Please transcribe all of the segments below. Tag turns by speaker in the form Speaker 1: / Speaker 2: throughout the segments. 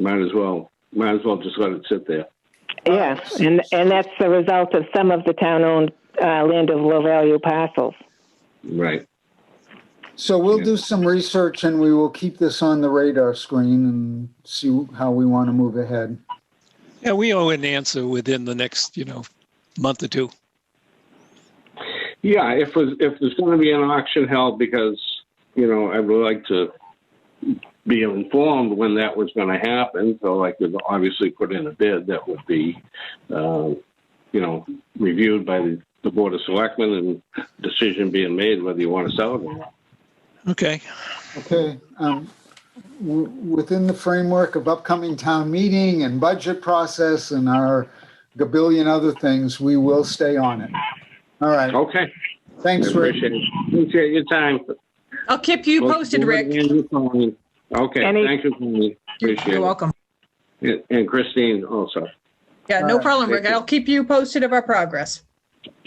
Speaker 1: Might as well. Might as well just let it sit there.
Speaker 2: Yes, and, and that's the result of some of the town-owned uh, land of low value parcels.
Speaker 1: Right.
Speaker 3: So we'll do some research and we will keep this on the radar screen and see how we want to move ahead.
Speaker 4: Yeah, we owe an answer within the next, you know, month or two.
Speaker 1: Yeah, if there's- if there's going to be an auction held, because you know I would like to be informed when that was going to happen, so I could obviously put in a bid that would be, uh, you know, reviewed by the, the board of selectmen and decision being made whether you want to sell it or not.
Speaker 4: Okay.
Speaker 3: Okay, um, w- within the framework of upcoming town meeting and budget process and our gabillion other things, we will stay on it. All right,
Speaker 1: Okay, I
Speaker 3: thanks, Rick.
Speaker 1: appreciate it. Appreciate your time.
Speaker 5: I'll keep you posted, Rick.
Speaker 1: Andrew Conley. Okay,
Speaker 2: Any-
Speaker 1: thank you, Conley.
Speaker 5: You're
Speaker 1: Appreciate
Speaker 5: you're
Speaker 1: it.
Speaker 5: welcome.
Speaker 1: And- And Christine also.
Speaker 5: Yeah,
Speaker 3: All
Speaker 5: no
Speaker 3: right,
Speaker 5: problem,
Speaker 1: thank
Speaker 5: Rick.
Speaker 1: you.
Speaker 5: I'll keep you posted of our progress.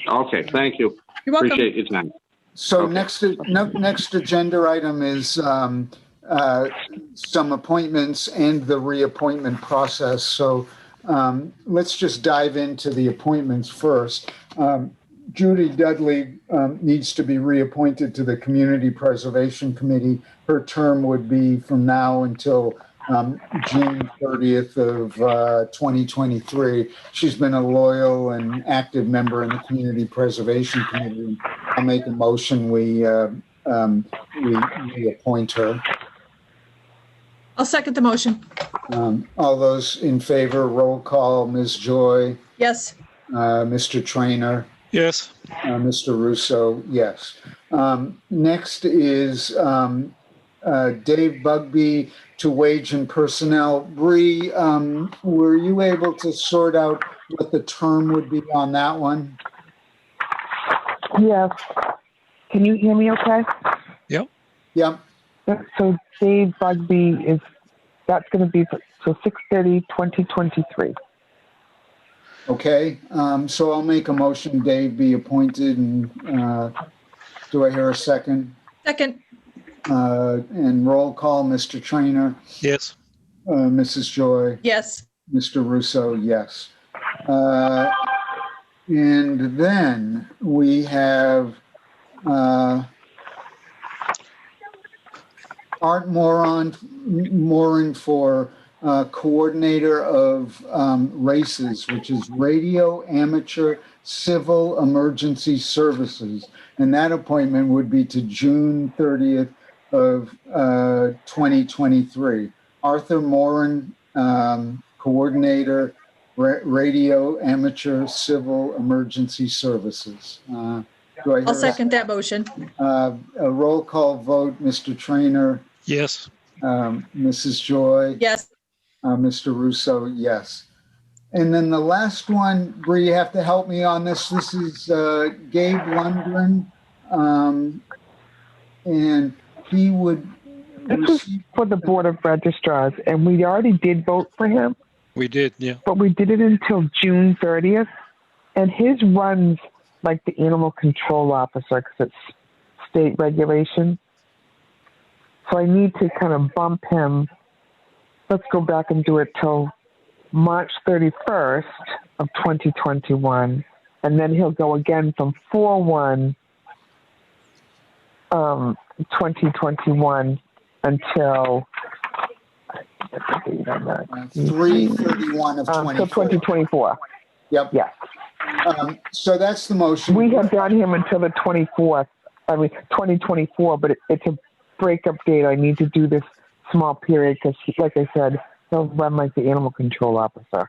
Speaker 1: Okay, thank you.
Speaker 5: You're welcome.
Speaker 1: Appreciate your time.
Speaker 3: So
Speaker 1: Okay.
Speaker 3: next, no- next agenda item is um, uh, some appointments and the reappointment process. So um, let's just dive into the appointments first. Um, Judy Dudley um, needs to be reappointed to the Community Preservation Committee. Her term would be from now until um, June 30th of uh, 2023. She's been a loyal and active member in the Community Preservation Committee. I'll make a motion, we, uh, um, we, we appoint her.
Speaker 5: I'll second the motion.
Speaker 3: Um, all those in favor, roll call, Ms. Joy,
Speaker 5: Yes,
Speaker 3: uh, Mr. Trainer,
Speaker 4: Yes.
Speaker 3: uh, Mr. Russo, yes. Um, next is, um, uh, Dave Bugby to Wage and Personnel. Bree, um, were you able to sort out what the term would be on that one?
Speaker 6: Yes. Can you hear me okay?
Speaker 3: Yep,
Speaker 6: Yep, So Dave Bugby is, that's going to be for- so 6:30, 2023.
Speaker 3: Okay, um, so I'll make a motion Dave be appointed and, uh, do I hear a second?
Speaker 5: second.
Speaker 3: Uh, and roll call, Mr. Trainer,
Speaker 4: Yes.
Speaker 3: uh, Mrs. Joy,
Speaker 5: Yes,
Speaker 3: Mr. Russo, yes. Uh, and then we have, uh, Art Moron, Moran for, uh, coordinator of, um, races, which is Radio Amateur Civil Emergency Services. And that appointment would be to June thirtieth of, uh, twenty twenty-three. Arthur Moran, um, coordinator, ra- radio amateur civil emergency services. Uh, Do I hear
Speaker 5: I'll
Speaker 3: a-
Speaker 5: second that motion.
Speaker 3: Uh, A roll call vote, Mr. Trainer,
Speaker 4: Yes.
Speaker 3: um, Mrs. Joy,
Speaker 5: Yes,
Speaker 3: uh, Mr. Russo, yes. And then the last one, Bree, you have to help me on this. This is uh, Gabe Lundgren. um, And he would
Speaker 6: This is
Speaker 3: receive
Speaker 6: for the Board of Registrars, and we already did vote for him,
Speaker 4: We did. Yeah.
Speaker 6: but we did it until June 30th. And his runs like the animal control officer because it's state regulation. So I need to kind of bump him. Let's go back and do it till March 31st of 2021. And then he'll go again from 4 1 um, 2021 until. I think I'm not-
Speaker 3: uh, 331 of
Speaker 6: um, till
Speaker 3: 24.
Speaker 6: 2024.
Speaker 3: Yep.
Speaker 6: Yes.
Speaker 3: Um, So that's the motion.
Speaker 6: We have done him until the 24th, I mean, 2024, but it, it's a breakup date. I need to do this small period because, like I said, he'll run like the animal control officer.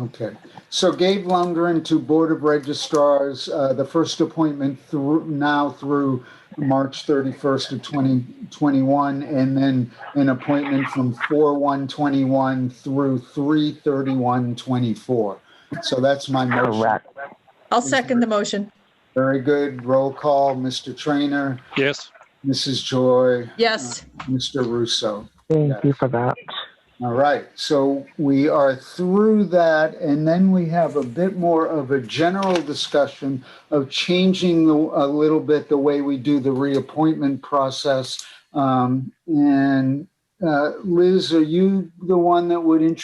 Speaker 3: Okay, so Gabe Lundgren to Board of Registrars, uh, the first appointment through, now through March 31st of 2021, and then an appointment from 4/1/21 through 3/31/24. So that's my motion.
Speaker 6: Correct.
Speaker 5: I'll second the motion.
Speaker 3: Very good. Roll call, Mr. Trainer,
Speaker 4: Yes.
Speaker 3: Mrs. Joy,
Speaker 5: Yes,
Speaker 3: Mr. Russo.
Speaker 6: Thank
Speaker 3: Yes.
Speaker 6: you for that.
Speaker 3: All right, so we are through that, and then we have a bit more of a general discussion of changing the- a little bit the way we do the reappointment process. Um, And Uh, Liz, are you the one that would introduce